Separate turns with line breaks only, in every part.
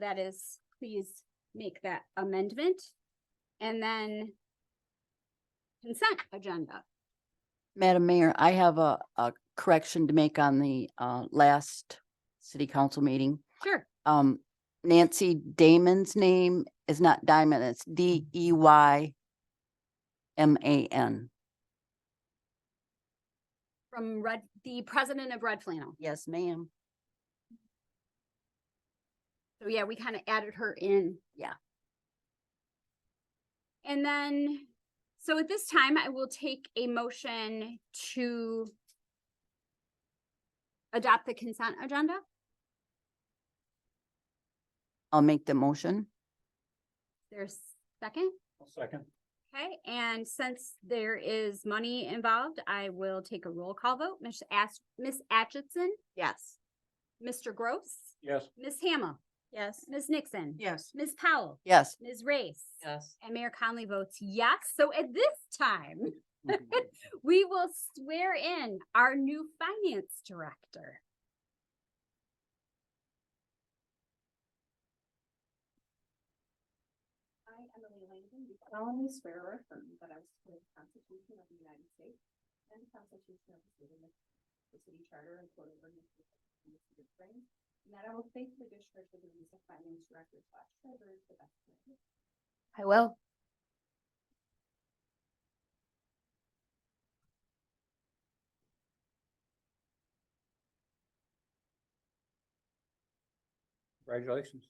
that is, please make that amendment. And then consent agenda.
Madam Mayor, I have a, a correction to make on the, uh, last city council meeting.
Sure.
Um, Nancy Damon's name is not Diamond, it's D E Y M A N.
From Red, the president of Red Flannel.
Yes, ma'am.
So yeah, we kind of added her in.
Yeah.
And then, so at this time, I will take a motion to adopt the consent agenda.
I'll make the motion.
There's second,
Second.
okay? And since there is money involved, I will take a roll call vote. Miss Ash, Miss Atchison,
Yes.
Mr. Gross,
Yes.
Miss Hamel,
Yes.
Miss Nixon.
Yes.
Ms. Powell,
Yes,
Ms. Race.
Yes.
And Mayor Conley votes yes. So at this time, we will swear in our new finance director.
I, Emily Langdon, do solemnly swear or affirm that I will support the Constitution of the United States and the Constitution of the State of Michigan, the city charter and code of ordinances of the city of Crane, and that I will faithfully discharge the duties of finance director slash treasurer to the best of my ability.
I will.
Congratulations.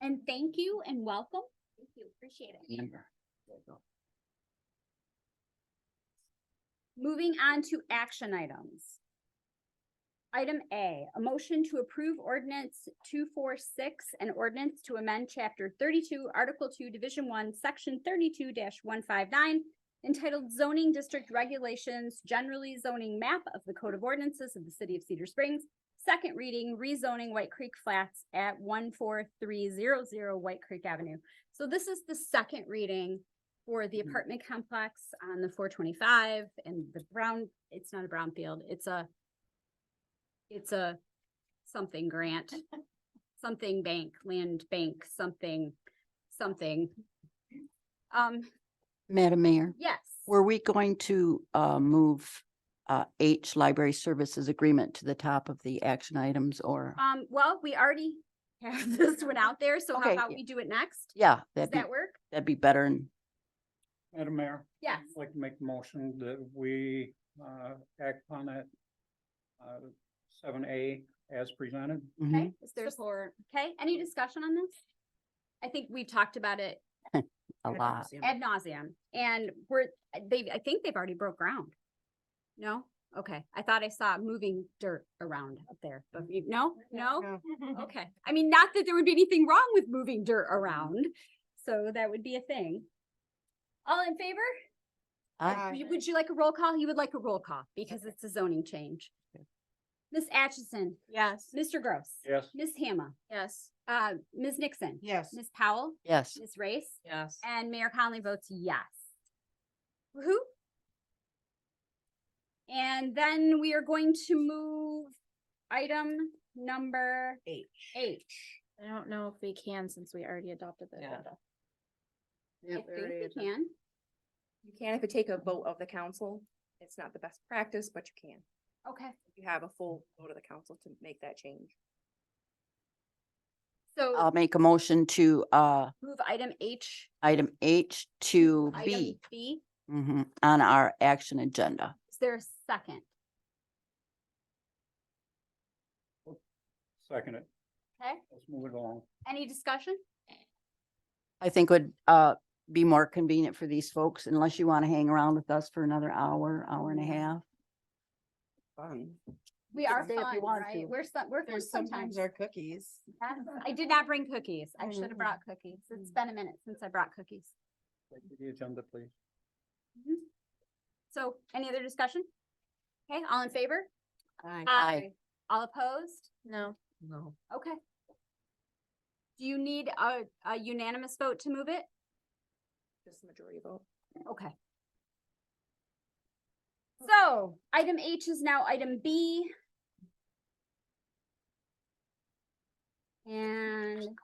And thank you and welcome.
Thank you, appreciate it.
Amber.
Moving on to action items. Item A, a motion to approve ordinance two four six an ordinance to amend chapter thirty-two, article two, division one, section thirty-two one five nine entitled zoning district regulations, generally zoning map of the code of ordinances of the city of Cedar Springs. Second reading, rezoning White Creek Flats at one four three zero zero White Creek Avenue. So this is the second reading for the
Mm-hmm.
Mhm.
apartment complex on the four twenty-five and the brown, it's not a brownfield, it's a it's a something grant, something bank, land bank, something, something. Um,
Madam Mayor,
yes.
were we going to, uh, move, uh, H Library Services Agreement to the top of the action items or?
Um, well, we already have this one out there, so how
Okay.
about we do it next?
Yeah,
Does
that'd be,
that work?
that'd be better and
Madam Mayor.
Yes.
I'd Like to make a motion that we uh act on it. Uh, seven A as presented.
mhm.
Okay, is there, okay, any discussion on this? I think we've talked about it
a lot.
ad nauseum and we're, they, I think they've already broke ground. No? Okay, I thought I saw moving dirt around up there, but you, no, no? Oh, Okay, I mean, not that there would be anything wrong with moving dirt around, so that would be a thing. All in favor?
Uh,
I,
Would you- Would you like a roll call? You would like a roll call because it's a zoning change. Ms. Atchison,
Yes.
Mr. Gross.
Yes.
Ms. Hama,
Yes.
uh, Ms. Nixon.
Yes.
Ms. Powell,
yes,
Ms. Race,
Yes.
and Mayor Conley votes yes. Woohoo. And then we are going to move item number
H.
eight.
I don't know if we can since we already adopted the
Yeah.
agenda.
I think we can.
You can if you take a vote of the council. It's not the best practice, but you can.
Okay.
You have a full vote of the council to make that change.
So
I'll make a motion to, uh,
move item H,
item H to
item
B
B.
mhm, on our action agenda.
Is there a second?
Second it.
Okay,
Let's move it along.
any discussion?
I think would, uh, be more convenient for these folks unless you want to hang around with us for another hour, hour and a half.
Fun.
We
can
are
stay if you
fun,
want
right?
to.
We're some, we're fun
There's sometimes
sometimes.
our cookies.
Yes, I did not bring cookies. I should have
Mm.
brought cookies. It's been a minute since I brought cookies.
Take The agenda, please.
So any other discussion? Okay, all in favor?
Aye.
All opposed?
No,
No.
Okay. Do you need a, a unanimous vote to move it?
Just the majority vote.
Okay. So item H is now item B. And